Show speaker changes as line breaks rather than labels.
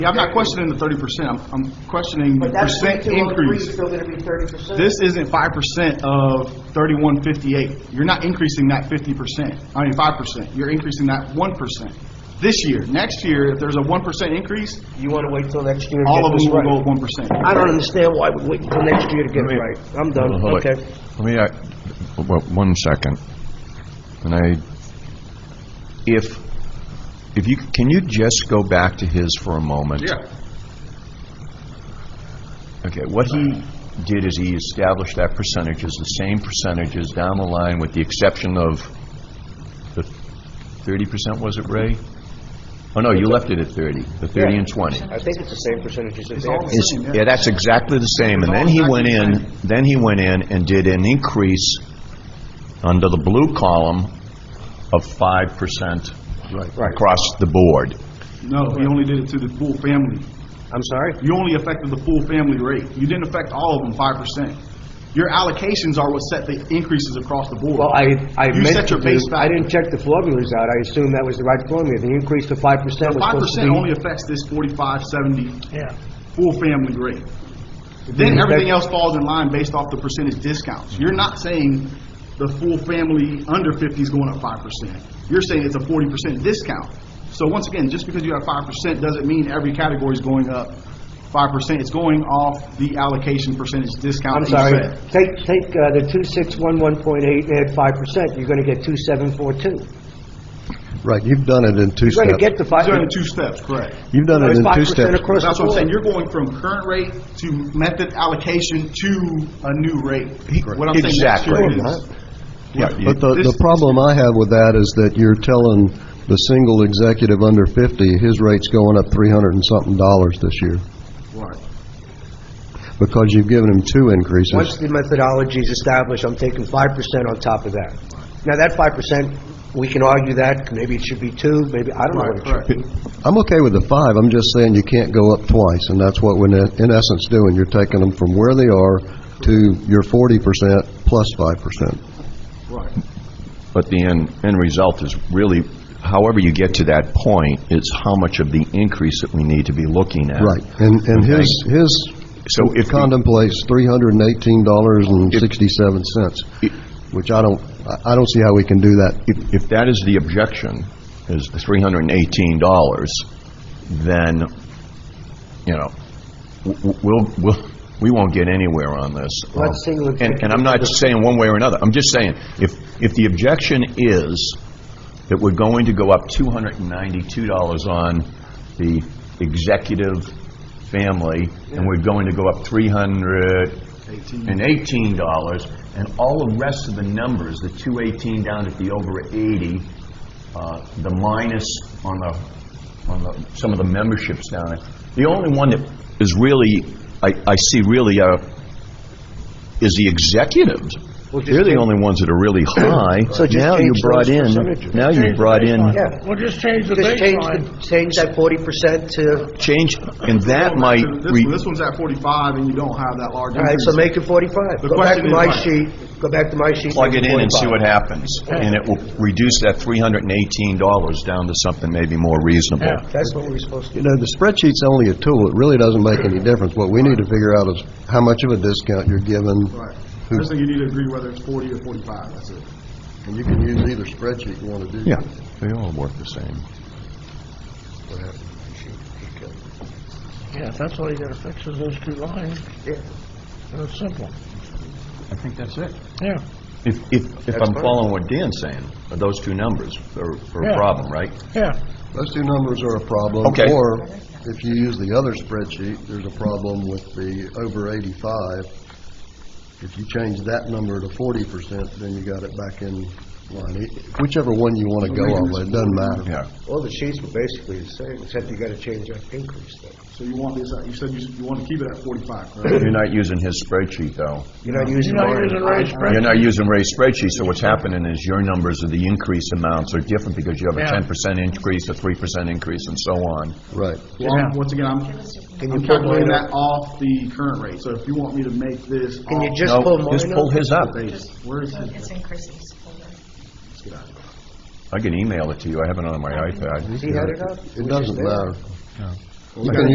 Yeah, I'm not questioning the thirty percent, I'm, I'm questioning the
But that's
percent
twenty-two oh three,
increase.
still gonna be thirty percent.
This isn't five percent of thirty-one fifty-eight. You're not increasing that fifty percent, I mean, five percent. You're increasing that one percent this year. Next year, if there's a one percent increase,
You want to wait till next year to
all
get
of
this
them will go
right?
at one percent.
I don't understand why we wait till next year to get it
Let me-
right. I'm done,
Hold on,
okay?
hold on. Let me, act- w- one second. And I, if, if you, can you just go back to his for a moment?
Yeah.
Okay, what he did is he established that percentages, the same percentages down the line with the exception of the 30%, was it, Ray? Oh, no, you left it at 30, the 30 and 20.
I think it's the same percentages that
It's
they
all
have.
the
It's-
same, yeah.
Yeah, that's exactly the same. And
It's all
then he went
exactly the
in, then he went in and did an increase under the blue column of 5% across the board.
No, you only did it to the full family.
I'm sorry?
You only affected the full family rate. You didn't affect all of them five percent. Your allocations are what set the increases across the board.
Well, I, I
You
meant
set
to
your
do,
base
I
value.
didn't check the formulas out. I assumed that was the right formula. The increase to 5% was
Five
supposed to
percent
be...
only affects this forty-five, seventy,
Yeah.
full family rate. Then
Mhm.
everything else falls in line based off the percentage discounts. You're not saying the full family under fifty is going up five percent. You're saying it's a forty percent discount. So once again, just because you have five percent doesn't mean every category is going up five percent. It's going off the allocation percentage discount.
I'm
that you
sorry.
set.
Take, take uh, the 2611.8 and add 5%, you're going to get 2742.
Right, you've done it in two
You're going to get
steps.
the 5...
You're doing two steps, correct?
You've done it
It's
in
5%
two steps.
across
That's
the
what I'm saying,
board.
you're going from current rate to method allocation to a new rate. What I'm saying next
Exactly.
year
No,
is-
Yeah, you-
But the,
This-
the problem I have with that is that you're telling the single executive under 50, his rate's going up 300 and something dollars this year,
Right.
because you've given him two
Once
increases.
the methodology is established, I'm taking 5% on top of that. Now, that 5%, we can argue that, maybe it should be 2, maybe, I don't know what it should
Correct.
be.
I'm okay with the five, I'm just saying you can't go up twice, and that's what we're in- in essence doing. You're taking them from where they are to your 40% plus 5%.
But the end, end result is really, however you get to that point, it's how much of the increase that we need to be looking at.
Right, and, and his, his
So if we-
contemplates three hundred and eighteen dollars and sixty-seven cents, which I don't, I- I don't see how we can do that.
If, if that is the objection, is the $318, then, you know, w- w- we'll, we'll, we won't get anywhere on this. Um,
Not single
And- And I'm not saying one way or another, I'm just saying, if, if the objection is that we're going to go up $292 on the executive family, and we're going to go up 318 dollars, and all the rest of the numbers, the 218 down at the over 80, uh, the minus on the, on the, some of the memberships down there, the only one that is really, I, I see really uh, is the executives.
Well, just
They're
change-
the only ones that are really high.
So just
Now you
change
brought
those
in,
percentages.
now you brought in,
Yeah.
Well, just change the
Just change,
baseline.
the- change that 40% to,
change, and that might,
This,
re-
one- this one's at forty-five and you don't have that large
all right,
increase.
so make it 45.
The
Go
question
back
is
to my
why?
sheet, go back to my sheet.
plug
make
it in and see
45.
what happens. And it will reduce that $318 down to something maybe more reasonable.
That's what we're supposed to
You know, the spreadsheet's only a tool, it really doesn't make any difference. What we need to figure out is how much of a discount you're given,
Right. First thing you need to agree whether it's forty or forty-five, that's it.
and you can use either spreadsheet you want to do.
Yeah, they all work the same.
Yeah, that's all you gotta fix is those two lines. Yeah. And it's simple.
I think that's it.
Yeah.
If, if, if I'm following what Dan's saying, those two numbers are are a
Yeah.
problem, right?
Yeah.
Those two numbers are a problem.
Okay.
Or if you use the other spreadsheet, there's a problem with the over 85. If you change that number to 40%, then you got it back in line. It- Whichever one you want to go on, with, it doesn't matter.
Yeah.
do. All the sheets were basically the same, except you gotta change that increase thing.
So you want this, at- you said you, you want to keep it at forty-five, correct?
You're not using his spreadsheet, though.
You're not using.
You're not
mine.
using Ray's spreadsheet.
You're not using Ray's spreadsheet, so what's happening is your numbers of the increase amounts are different because you have a
Yeah.
10% increase, a 3% increase, and so on.
Right.
Well, I'm- once again, I'm,
Can
I'm
you pull
calculating
mine up?
that off the current rate, so if you want me to make this off.
Can you just
No,
pull mine up?
Just pull his up.
Base, where is it?
It's increases.
I can email it to you, I have it on my iPad.
He had it up?
It
Which is
doesn't
there.
matter.
We got